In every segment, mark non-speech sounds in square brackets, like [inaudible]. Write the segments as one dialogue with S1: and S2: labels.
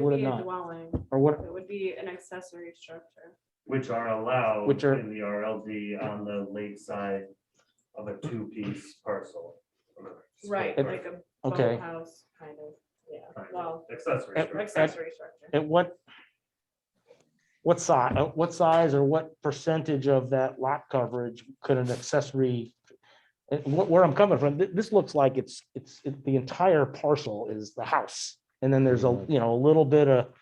S1: would
S2: be
S1: it
S2: a
S1: not?
S2: Dwelling,
S1: Or what,
S2: it would be an accessory structure.
S3: which are allowed.
S1: Which are-
S3: In the RLD on the lakeside of a two-piece parcel.
S2: Right,
S1: It-
S2: like a
S1: okay.
S2: house kind of, yeah,
S3: Kind of
S2: well,
S3: Accessory.
S1: At-
S3: structure.
S2: accessory structure.
S1: at what? What size, what size or what percentage of that lot coverage could an accessory? uh, wh- Where I'm coming from, thi- this looks like it's, it's, it- the entire parcel is the house. And then there's a, you know, a little bit of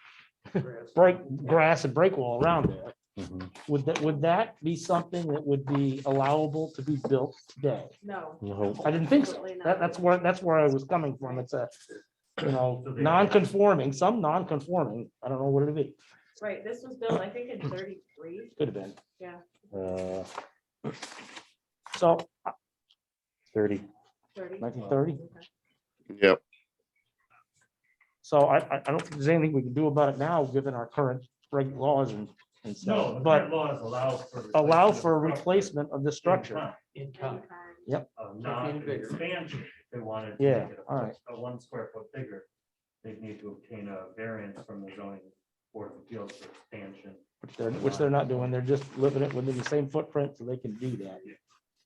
S1: break, grass and break wall around it.
S4: Mhm.
S1: Would that, would that be something that would be allowable to be built today?
S2: No.
S4: No,
S1: I didn't think so.
S2: absolutely
S1: That,
S2: not.
S1: that's where, that's where I was coming from. It's a, you know,
S3: So they-
S1: non-conforming, some non-conforming. I don't know what it'd be.
S2: Right, this was built, I think, in thirty-three,
S1: Could have been.
S4: uh,
S1: So
S4: Thirty.
S2: thirty.
S1: nineteen thirty.
S2: Okay.
S5: Yep.
S1: So I, I, I don't think there's anything we can do about it now, given our current reg laws and, and
S3: No,
S1: stuff.
S3: the
S1: But
S3: current laws allow for.
S1: allow
S3: replacement
S1: for a
S3: of structure
S1: replacement of the
S3: in
S1: structure.
S3: kind,
S6: in
S2: And
S6: kind.
S2: kind.
S3: uh, Not an expansion, if they wanted. to
S1: Yeah,
S3: make it a-
S1: all right.
S3: A one square foot bigger, they'd need to obtain a variance from the zoning board of appeals for expansion.
S1: which they're, which they're not doing. They're just living it within the same footprint, so they can do that.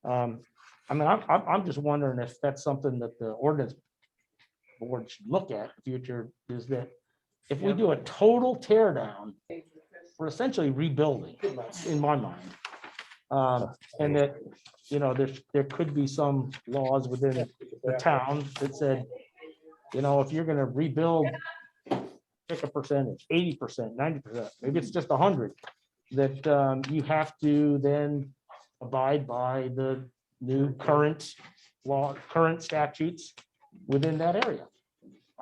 S1: Um, I mean, I'm, I'm, I'm just wondering if that's something that the ordinance board should look at in the future, is that if we do a total tear down, we're essentially rebuilding, in my mind. Um, and that, you know, there's, there could be some laws within the town that said, you know, if you're gonna rebuild, pick a percentage, eighty percent, ninety percent, maybe it's just a hundred, that um, you have to then abide by the new current law, current statutes within that area.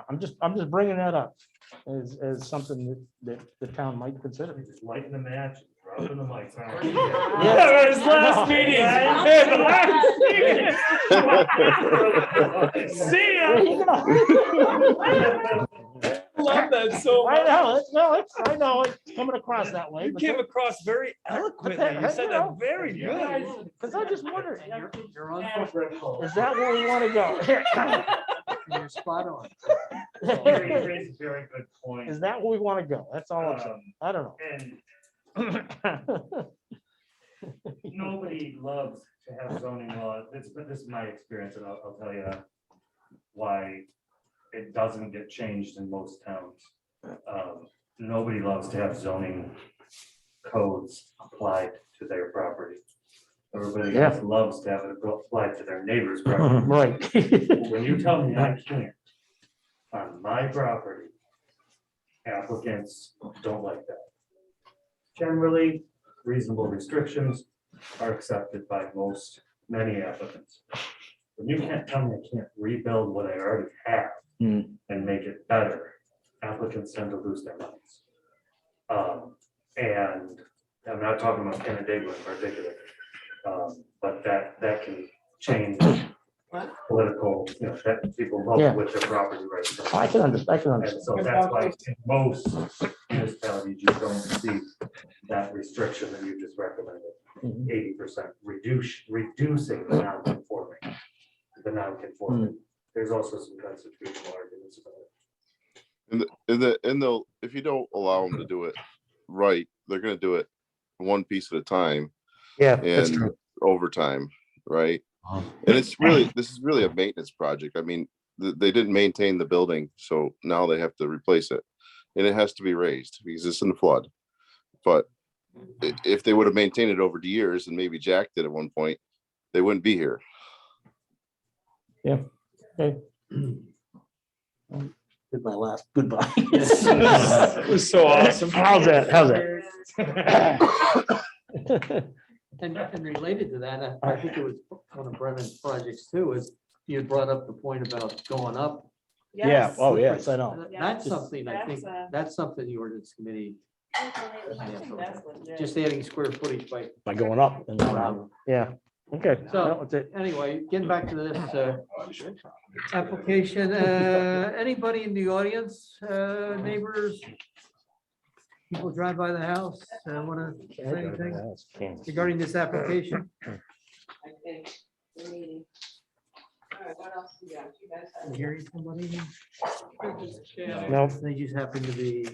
S1: I'm just, I'm just bringing that up as, as something that, that the town might consider.
S3: Just lighten the match, dropping the mics.
S1: [laughs] Yeah, it was last meeting.
S3: Hey, the
S6: [laughs] See
S2: [laughs]
S3: [laughs]
S6: Love that so
S1: I
S6: much.
S1: know, it's, no, it's, I know, it's coming across that way.
S6: You came across very eloquently. You said that very good.
S1: Because I just wondered,
S7: You're on,
S1: is that where we want to go? [laughs]
S7: you're spot on.
S3: Very, very, very good point.
S1: Is that where we want to go? That's all I'm saying.
S3: Um,
S1: I don't
S3: And
S1: know.
S3: nobody loves to have zoning law, this, but this is my experience, and I'll, I'll tell you why it doesn't get changed in most towns. Um, Nobody loves to have zoning codes applied to their property. Everybody
S1: Yeah.
S3: else loves to have it applied to their
S1: [laughs]
S3: neighbor's
S1: [laughs]
S3: property.
S1: Right.
S3: When you tell me I can't on my property, applicants don't like that. Generally, reasonable restrictions are accepted by most, many applicants. When you can't tell me I can't rebuild what I already have
S1: Hmm.
S3: and make it better, applicants tend to lose their minds. Um, and I'm not talking about Canandaigua in particular, um, but that, that can change political, you know, that people
S1: Yeah.
S3: vote with their property rights.
S1: I can understand, I can
S3: And
S1: understand.
S3: so that's why in most municipalities, you don't see that restriction that you just recommended.
S1: Mhm.
S3: Eighty percent reduce, reducing the non-conforming, the non-conforming. There's also some constitutional arguments about it.
S5: And the, and they'll, if you don't allow them to do it right, they're gonna do it one piece at a time
S1: Yeah, that's
S5: and [laughs]
S1: true.
S5: over time, right?
S4: Uh-huh.
S5: And it's really, this is really a maintenance project. I mean, th- they didn't maintain the building, so now they have to replace it. And it has to be raised because it's in the flood. But i- if they would have maintained it over the years and maybe Jack did at one point, they wouldn't be here.
S1: Did my last goodbye.
S6: It was so awesome.
S1: How's that? How's
S2: [coughs]
S1: that?
S7: And, and related to that, I I think it was one of Brennan's projects too, is you had brought up the point about going up.
S2: Yes.
S1: Oh, yes, I know.
S7: That's something I think,
S2: That's uh, a-
S7: that's something the ordinance committee,
S2: I think that's legit.
S7: just adding square footage by.
S1: By going up. and going up.
S7: um,
S1: Yeah, okay.
S7: So-
S1: that was it.
S7: Anyway, getting back to this, uh, application,
S1: [laughs]
S7: uh, anybody in the audience, uh, neighbors? People drive by the house, uh, wanna say anything? regarding this application?
S2: I think, the meeting.
S8: what else you got? You guys have-
S7: Hearing somebody?
S1: No.
S7: They just happen to be.